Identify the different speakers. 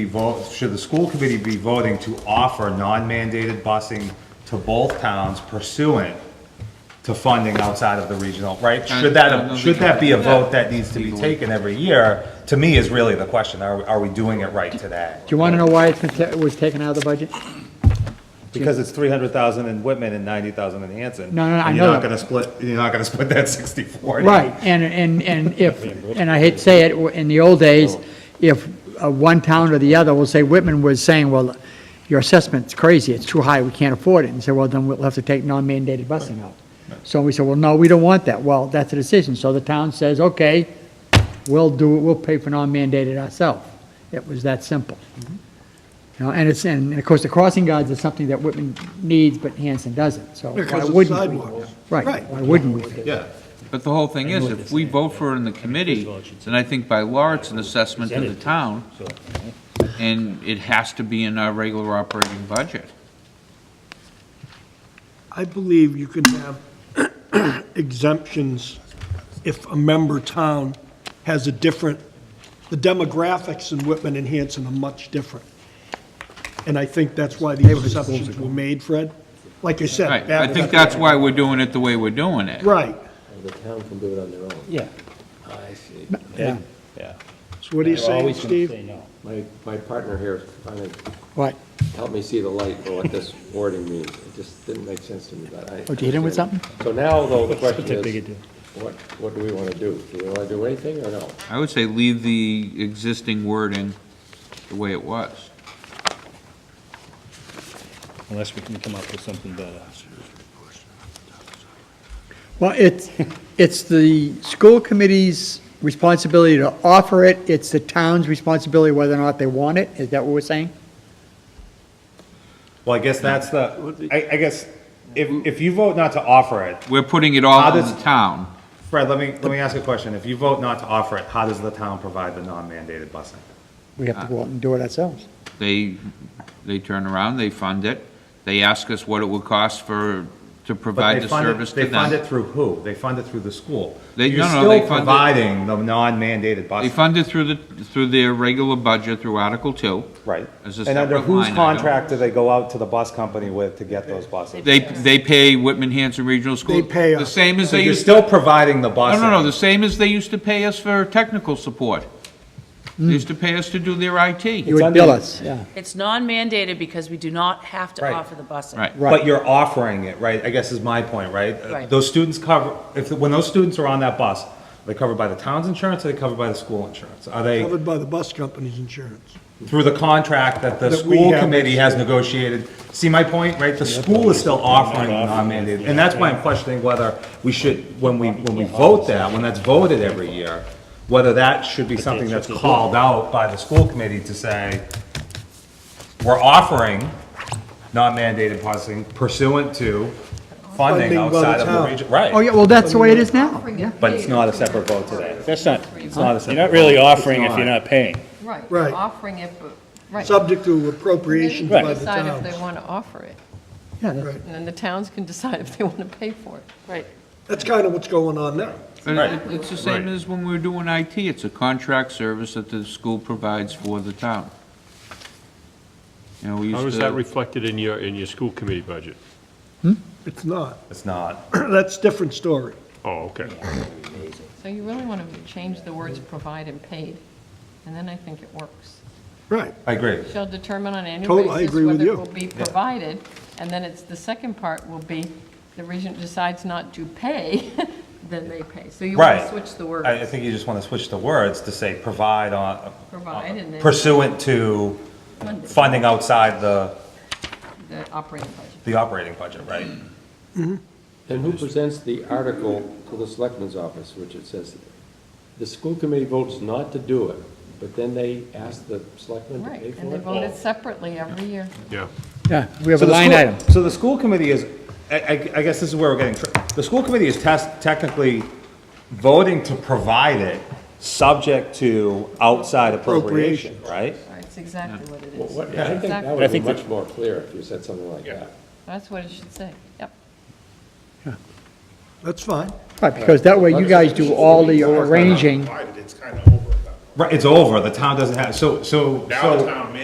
Speaker 1: be vote, should the school committee be voting to offer non-mandated busing to both towns pursuant to funding outside of the regional, right? Should
Speaker 2: I don't
Speaker 1: that,
Speaker 2: think
Speaker 1: should that be a
Speaker 2: we-
Speaker 1: vote that needs to be taken every year, to me is really the question, are, are we doing it right today?
Speaker 3: Do you want to know why it's been, ta- was taken out of the budget?
Speaker 1: Because it's three hundred thousand in Whitman and ninety thousand in Hanson.
Speaker 3: No, no, no, I
Speaker 1: and You're
Speaker 3: know
Speaker 1: not
Speaker 3: that.
Speaker 1: gonna split, you're not gonna split that sixty-four.
Speaker 3: Right, and, and, and if, and I hate to say it, in the old days, if uh, one town or the other, will say Whitman was saying, well, your assessment's crazy, it's too high, we can't afford it, and say, well, then we'll have to take non-mandated busing out. So we said, well, no, we don't want that, well, that's a decision, so the town says, okay, we'll do, it. we'll pay for non-mandated ourselves. It was that simple. You know, and it's, and of course, the crossing guards is something that Whitman needs, but Hanson doesn't, so why
Speaker 4: Because of the
Speaker 3: wouldn't we?
Speaker 4: sidewalks.
Speaker 3: Right,
Speaker 4: Right.
Speaker 3: why wouldn't we? fix it?
Speaker 1: Yeah.
Speaker 2: But the whole thing is, if we vote for it in the committee, then I think by law, it's an assessment to the town, and it has to be in our regular operating budget.
Speaker 4: I believe you can have exemptions if a member town has a different, the demographics in Whitman and Hanson are much different. And I think that's why these exceptions were made, Fred. Like I said.
Speaker 2: Right, I
Speaker 4: back-
Speaker 2: think that's why we're doing it the way we're doing it.
Speaker 4: Right.
Speaker 5: The town can do it on their own.
Speaker 3: Yeah.
Speaker 5: Ah, I see.
Speaker 3: Yeah,
Speaker 4: So what are you saying, Steve?
Speaker 5: My, my partner here finally
Speaker 3: what,
Speaker 5: helped me see the light for what this wording means. It just didn't make sense to me, but I.
Speaker 3: Oh, did you hit him with something?
Speaker 5: So now, though, the question is, what, what do we want to do? Do we want to do anything or no?
Speaker 2: I would say leave the existing wording the way it was.
Speaker 6: unless we can come up with something better.
Speaker 3: well, it's, it's the school committee's responsibility to offer it, it's the town's responsibility whether or not they want it, is that what we're saying?
Speaker 1: Well, I guess that's the, I, I guess, if, if you vote not to offer it,
Speaker 2: We're putting it all
Speaker 1: How
Speaker 2: on
Speaker 1: does-
Speaker 2: the town.
Speaker 1: Fred, let me, let me ask you a question. If you vote not to offer it, how does the town provide the non-mandated busing?
Speaker 3: We have to go out and do it ourselves.
Speaker 2: They, they turn around, they fund it, they ask us what it would cost for, to
Speaker 1: But
Speaker 2: provide
Speaker 1: they
Speaker 2: the
Speaker 1: fund it-
Speaker 2: service to
Speaker 1: They fund it
Speaker 2: them.
Speaker 1: through who? They fund it through the school.
Speaker 2: They-
Speaker 1: You're
Speaker 2: no, no, they
Speaker 1: still
Speaker 2: fund it-
Speaker 1: providing the non-mandated
Speaker 2: They
Speaker 1: busing,
Speaker 2: fund it through the, through their regular budget, through Article Two.
Speaker 1: right?
Speaker 2: It's a
Speaker 1: And under
Speaker 2: separate
Speaker 1: whose
Speaker 2: line item.
Speaker 1: contract do they go out to the bus company with to get those buses?
Speaker 2: They, they pay Whitman Hanson Regional School.
Speaker 4: They pay
Speaker 2: The
Speaker 4: us.
Speaker 2: same as
Speaker 1: So
Speaker 2: they
Speaker 1: you're
Speaker 2: used,
Speaker 1: still providing the busing?
Speaker 2: no, no, no, the same as they used to pay us for technical support. They
Speaker 4: Mm.
Speaker 2: used to pay us to do their
Speaker 3: You
Speaker 2: IT.
Speaker 3: would bill us, yeah,
Speaker 7: It's non-mandated because we do not have to
Speaker 1: Right.
Speaker 7: offer the busing.
Speaker 2: Right.
Speaker 1: But you're offering it, right? I guess is my point, right?
Speaker 7: Right.
Speaker 1: Those students cover, if, when those students are on that bus, are they covered by the town's insurance, are they covered by the school insurance? Are they?
Speaker 4: Covered by the bus company's insurance.
Speaker 1: through the contract that the
Speaker 4: That we
Speaker 1: school
Speaker 4: have.
Speaker 1: committee has negotiated. See my point, right? The school is still offering the non-mandated, and that's why I'm questioning whether we should, when we, when we vote that, when that's voted every year, whether that should be something that's called out by the school committee to say, we're offering non-mandated busing pursuant to funding
Speaker 4: Funding by the
Speaker 1: outside of the
Speaker 4: town.
Speaker 1: region.
Speaker 3: oh,
Speaker 1: Right,
Speaker 3: yeah, well, that's the way it is now, yeah.
Speaker 1: but it's not a separate vote today.
Speaker 6: That's not,
Speaker 1: It's not a
Speaker 6: you're
Speaker 1: separate.
Speaker 6: not really
Speaker 1: vote.
Speaker 6: offering if
Speaker 1: It's
Speaker 6: you're not paying.
Speaker 8: Right.
Speaker 4: Right.
Speaker 8: Offering it, but, right.
Speaker 4: Subject to
Speaker 8: They
Speaker 4: appropriations
Speaker 8: can
Speaker 4: by the
Speaker 8: Decide if they
Speaker 4: towns.
Speaker 8: want to offer it,
Speaker 3: Yeah, that's-
Speaker 8: and then the towns can decide if they want to pay for it. Right.
Speaker 4: That's kind of what's going on now.
Speaker 2: But it- It's the same as when we were doing IT, it's a contract service that the school provides for the town. You know, we
Speaker 9: How
Speaker 2: used
Speaker 9: is that
Speaker 2: to,
Speaker 9: reflected in your, in your school committee budget?
Speaker 4: It's not.
Speaker 1: It's not.
Speaker 4: That's different story.
Speaker 9: Oh, okay.
Speaker 8: So you really want to change the words provide and paid, and then I think it works.
Speaker 4: Right.
Speaker 1: I agree.
Speaker 8: Shall determine on an annual
Speaker 4: Totally, I
Speaker 8: basis
Speaker 4: agree with
Speaker 8: whether
Speaker 4: you.
Speaker 8: it will be provided, and then it's, the second part will be, the region decides not to pay, then they pay. So you want
Speaker 1: Right.
Speaker 8: to switch the
Speaker 1: I, uh, I
Speaker 8: words,
Speaker 1: think you just want to switch the words to say provide on,
Speaker 8: provide and then
Speaker 1: pursuant to funding outside the,
Speaker 8: the operating budget.
Speaker 1: the operating budget, right?
Speaker 5: And who presents the article to the selectman's office, which it says, the school committee votes not to do it, but then they ask the selectman to
Speaker 8: Right,
Speaker 5: pay
Speaker 8: and
Speaker 5: for
Speaker 8: they
Speaker 5: it?
Speaker 8: vote it separately every year.
Speaker 9: Yeah.
Speaker 3: yeah, we have
Speaker 1: So
Speaker 3: a
Speaker 1: the
Speaker 3: line
Speaker 1: school-
Speaker 3: item.
Speaker 1: So the school committee is, I, I, I guess this is where we're getting, tr- the school committee is test, technically voting to provide it, subject to outside appropriation, right?
Speaker 8: That's exactly what it
Speaker 5: Well,
Speaker 8: is.
Speaker 5: what- I think that
Speaker 8: Exactly.
Speaker 5: would be
Speaker 6: think the-
Speaker 5: much more clear if you said something like that.
Speaker 8: That's what it should say, yep.
Speaker 4: That's fine.
Speaker 3: Right, because that way you guys do all the arranging,
Speaker 1: Right, it's over, the town doesn't have, so, so. so-